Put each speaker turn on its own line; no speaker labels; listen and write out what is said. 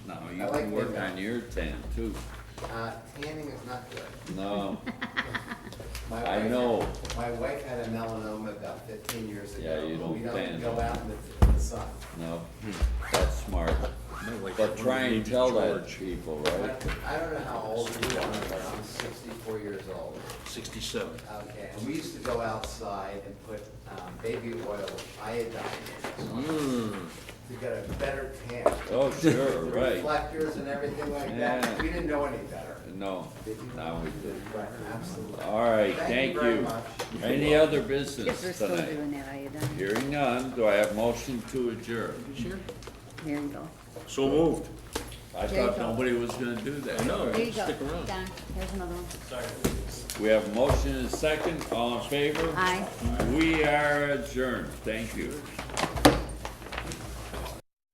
you
I like
can work
that.
on your tan too.
Uh, tanning is not good.
No,
My
I
wife-
know.
My wife had a melanoma about fifteen years ago.
Yeah, you don't
We
tan.
don't go out in the, in the sun.
no, that's smart. But try and tell that to people,
I
right?
I don't know how old you are, but I'm sixty-four years old.
Sixty-seven.
Okay, and we used to go outside and put um, baby oil iodine
Mm-hmm.
in it
Mm.
to get a better tan.
Oh, sure,
The
right.
Reflectors and everything like that.
Yeah.
We didn't know any better.
No,
Did you?
now we did.
Right, absolutely.
All right, thank
very
you.
much.
Any other
If we're
business
still
tonight?
doing that iodine,
Hearing none, do I have motion to adjourn?
there you go.
So moved.
I
Jacob.
thought nobody was gonna do that.
know.
There you go.
Stick around.
Don, here's another one.
We have motion and second, all in favor?
Aye.
We are adjourned, thank you.